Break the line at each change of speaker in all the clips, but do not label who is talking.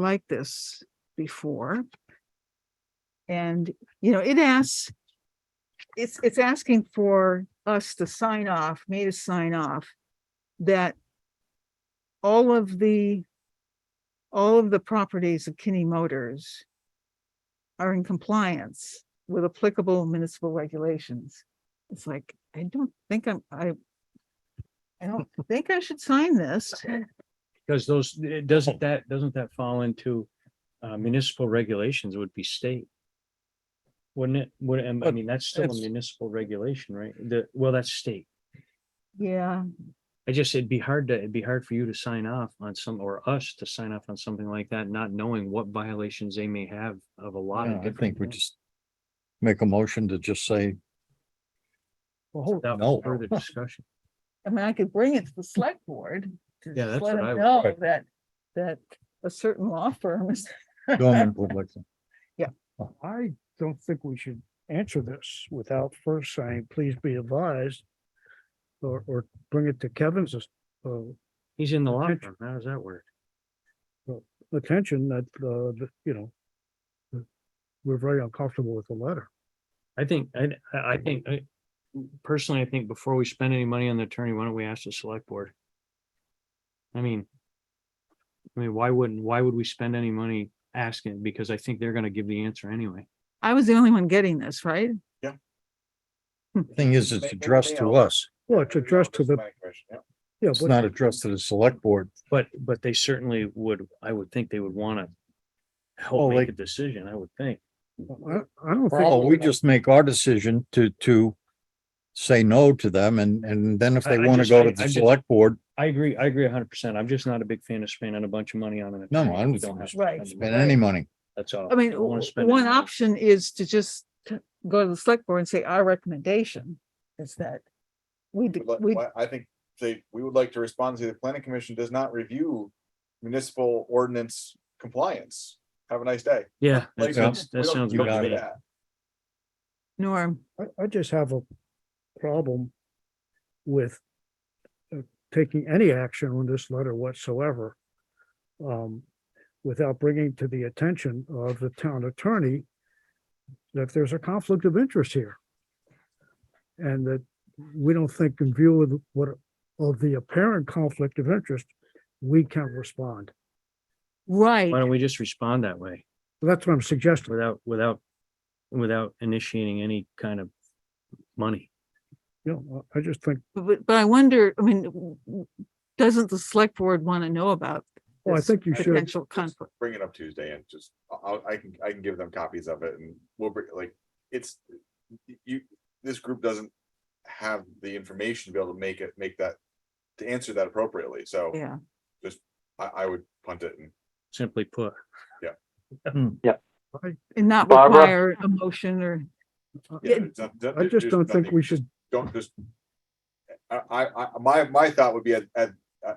like this before. And, you know, it asks, it's, it's asking for us to sign off, me to sign off, that all of the, all of the properties of Kinney Motors are in compliance with applicable municipal regulations. It's like, I don't think I'm, I, I don't think I should sign this.
Because those, it
Oh.
doesn't that, doesn't that fall into uh, municipal regulations would be state? Wouldn't it, would, and I
But
mean, that's still a
it's-
municipal regulation, right? The, well, that's state.
Yeah,
I just, it'd be hard to, it'd be hard for you to sign off on some, or us to sign off on something like that, not knowing what violations they may have of a lot
Yeah,
of
I
different.
think we
things.
just make a motion to just say,
Without
no.
Further discussion.
I mean, I could bring it to the select board. to
Yeah,
just
that's
let
what
them
I would-
Know
Right.
that, that a certain law firm is,
dormant public.
I don't think we should answer this without first saying, please be advised. Or, or bring it to Kevin's, uh,
He's in the law
Attention.
firm. How does that work?
attention that, uh, that, you know. that We're very uncomfortable with the letter.
I think, I, I I think, I personally, I think before we spend any money on the attorney, why don't we ask the select board? I mean. I mean, why wouldn't, why would we spend any money asking? Because I think they're gonna give the answer anyway.
I was the only one getting this, right?
Thing is, it's addressed to us.
Well, it's addressed to the, yeah,
It's
but-
not addressed to the select board.
But, but they certainly would, I would think they would wanna.
Oh,
Help make
like-
a decision, I would think.
I, I don't
Oh,
think,
we just make our decision to, to say no to them and, and then if
I-
they
I
want to
just-
go
I-
to the
I just-
select board,
I agree, I agree hundred percent. I'm just not a big fan of spending a bunch of money on an.
No,
attorney
I'm
who
just-
don't have to
Right.
spend
spend
money.
any money.
That's all.
I mean,
don't wanna
w-
spend
one
any money.
option is to just t- go to the select board and say, our recommendation is that we, d-
would like-
we,
I- I think they, we would like to respond to the planning commission does not review municipal ordinance compliance. Have a nice day.
Yeah, that
Like,
sounds,
we
that
don't-
sounds
we
good
don't
to
do
me.
that.
Norm,
I, I just have a problem with uh, taking any action on this letter whatsoever um, without bringing to the attention of the town attorney that there's a conflict of interest here. And that we don't think in view of the- what, of the apparent conflict of interest, we can respond.
right,
Why don't we just respond that way?
That's what I'm suggesting.
without, without, without initiating any kind of money.
You know, I I just think,
but, but I wonder, I mean, w- w- doesn't the select board want to know about?
well, I
this
think you should,
Potential conflict,
Bring it up Tuesday and just, I- I'll, I can, I can give them copies of it and we'll bring, like, it's, you, this group doesn't have the information to be able to make it, make that, to answer that appropriately. So
yeah,
I, I would punt it and
Simply put,
and not
Barbara?
require a motion or,
yeah,
Yeah,
it's not- that-
I just
there's
don't think
nothing-
we should
Don't just. I, I, I, my, my thought would be at, at,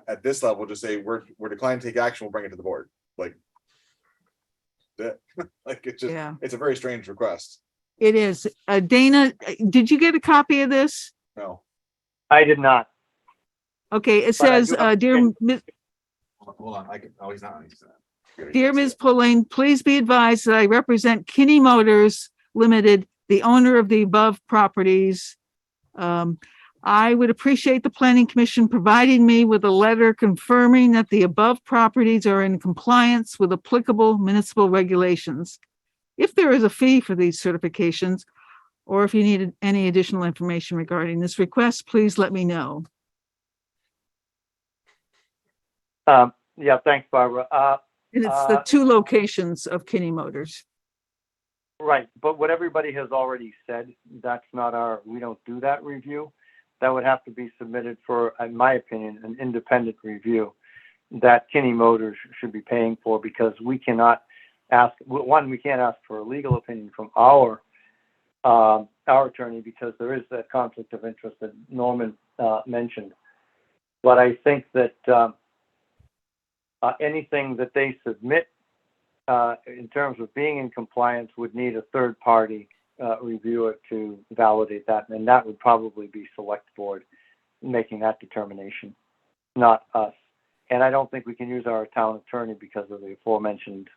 at this level, just say, we're, we're declining to take action, we'll bring it to the board, like. That, like, it's just,
yeah.
it's a very strange request,
It is. Uh, Dana, uh, did you get a copy of this?
no.
I did not.
Okay, it
But I do
says, uh,
have-
dear, Mi-
Hold on, I can, oh, he's not. he's not.
dear Ms. Pauline, please be advised that I represent Kinney Motors Limited, the owner of the above properties. Um, I would appreciate the planning commission providing me with a letter confirming that the above properties are in compliance with applicable municipal regulations. If there is a fee for these certifications, or if you needed any additional information regarding this request, please let me know.
Um, yeah, thanks, Barbara. Uh,
And it's the
Uh,
two locations of Kinney Motors.
right, but what everybody has already said, that's not our, we don't do that review. That would have to be submitted for, in my opinion, an independent review that Kinney Motors should be paying for because we cannot ask, one, we can't ask for a legal opinion from our, um, our attorney because there is that conflict of interest that Norman, uh, mentioned. But I think that, um, uh, anything that they submit uh, in terms of being in compliance, would need a third party uh, reviewer to validate that, and that would probably be select board making that determination, not us. And I don't think we can use our town attorney because of the aforementioned